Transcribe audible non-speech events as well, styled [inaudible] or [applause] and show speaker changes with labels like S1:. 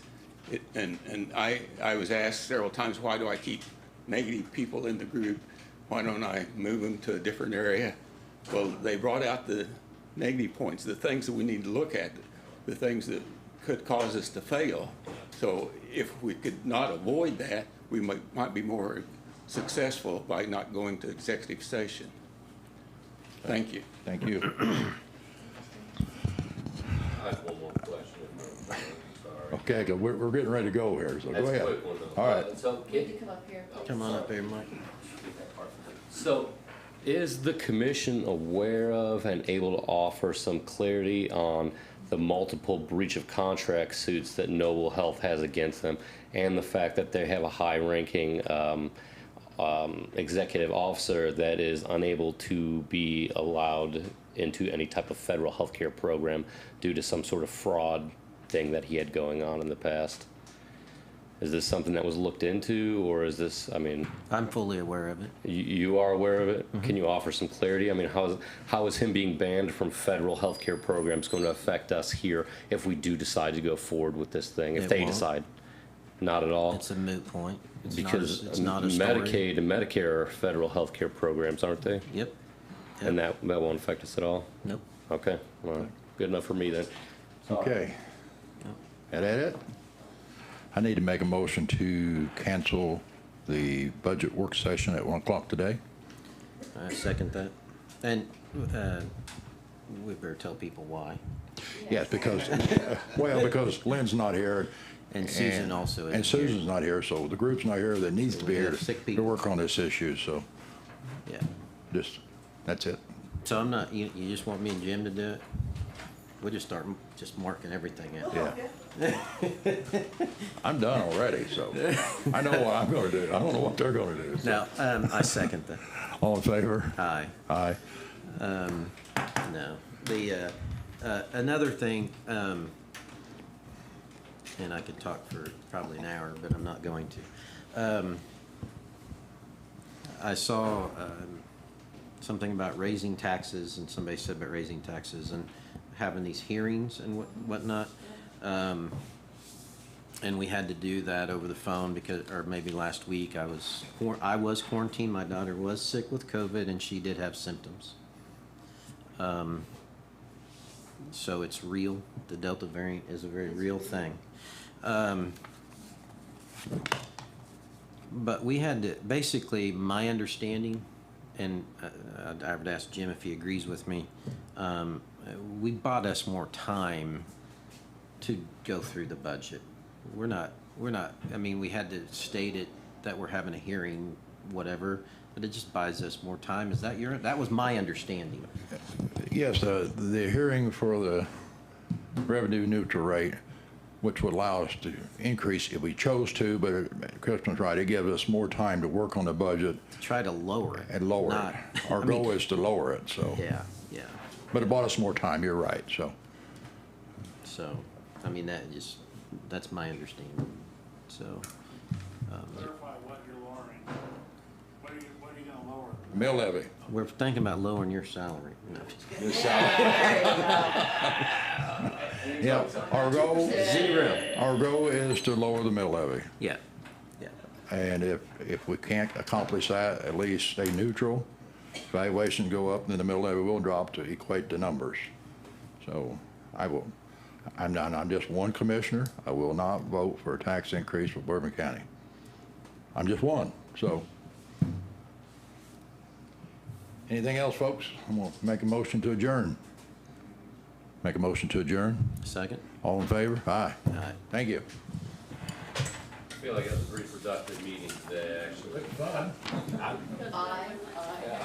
S1: It- And, and I, I was asked several times, why do I keep negative people in the group? Why don't I move them to a different area? Well, they brought out the negative points, the things that we need to look at, the things that could cause us to fail. So if we could not avoid that, we might, might be more successful by not going to executive session. Thank you.
S2: Thank you.
S3: I have one more question, I'm sorry.
S2: Okay, 'cause we're, we're getting ready to go here, so go
S3: That's a
S2: Oh, ahead.
S3: quick one though.
S2: All right,
S3: Uh, So,
S4: Need
S3: can,
S4: to come up here.
S5: Come on up here, Mike.
S3: so
S6: Is the commission aware of and able to offer some clarity on the multiple breach of contract suits that Noble Health has against them and the fact that they have a high-ranking um, um, executive officer that is unable to be allowed into any type of federal healthcare program due to some sort of fraud thing that he had going on in the past? Is this something that was looked into, or is this, I mean?
S5: I'm fully aware of it.
S6: You, you are aware of it?
S5: Mm-hmm.
S6: Can you offer some clarity? I mean, how is, how is him being banned from federal healthcare programs going to affect us here if we do decide to go forward with this thing? If
S5: It
S6: they
S5: won't.
S6: decide, not at all,
S5: It's a moot point. It's not a-
S6: because
S5: it's not a story.
S6: Medicaid and Medicare are federal healthcare programs, aren't they?
S5: Yep.
S6: And that that won't affect us at all.
S5: Nope.
S6: Okay, all right. good enough for me then.
S2: okay. That that it? I need to make a motion to cancel the budget work session at one o'clock today.
S5: I second that. And uh, we better tell people why.
S2: Yes, because, [laughs] well, because Lynn's not here.
S5: And Susan also
S2: And
S5: isn't here.
S2: Susan's not here, so the group's not here that needs to be
S5: We
S2: here
S5: have sick
S2: to
S5: people.
S2: work on this issue, so
S5: Yeah.
S2: just, that's it.
S5: So I'm not, you, you just want me and Jim to do it? We'll just start m- just marking everything out.
S2: Yeah. I'm done already,
S5: [laughs]
S2: so I know what I'm gonna do. I don't know what they're gonna do.
S5: No, Uh, um, I second that.
S2: All in favor?
S5: Aye.
S2: Aye.
S5: No. The, uh, uh, another thing, um, and I could talk for probably an hour, but I'm not going to. Um, I saw, um, something about raising taxes and somebody said about raising taxes and having these hearings and what, whatnot. Um, and we had to do that over the phone because, or maybe last week, I was, quar- I was quarantined. My daughter was sick with COVID and she did have symptoms. so it's real. The Delta variant is a very real thing. Um, But we had to, basically, my understanding, and uh, I'd- I would ask Jim if he agrees with me, um, uh, we bought us more time to go through the budget. We're not, we're not, I mean, we had to state it that we're having a hearing, whatever, but it just buys us more time. Is that your, that was my understanding.
S2: Yes, uh, the hearing for the revenue neutral rate, which would allow us to increase if we chose to, but Kristen's right, it gives us more time to work on the budget
S5: Try to lower it.
S2: and lower
S5: not-
S2: it. Our
S5: I mean,
S2: goal is to lower it, so.
S5: Yeah, yeah.
S2: But it bought us more time, you're right, so.
S5: So, I mean, that just, that's my understanding. So,
S7: Clarify what you're lowering. What are you, what are you gonna lower?
S2: Mill levy.
S5: we're thinking about lowering your salary. No, just kidding.
S2: Yeah, our goal,
S5: Zero.
S2: our goal is to lower the mill levy.
S5: Yeah, yeah.
S2: And if, if we can't accomplish that, at least stay neutral. Valuation go up, then the middle levy will drop to equate the numbers. So I will, I'm not, I'm just one commissioner. I will not vote for a tax increase for Bourbon County. I'm just one, so. Anything else, folks? I'm gonna make a motion to adjourn. Make a motion to adjourn.
S5: Second?
S2: All in favor? Aye.
S5: All right.
S2: Thank you.
S3: I feel like that was a pretty productive meeting today, actually.
S4: Aye, aye.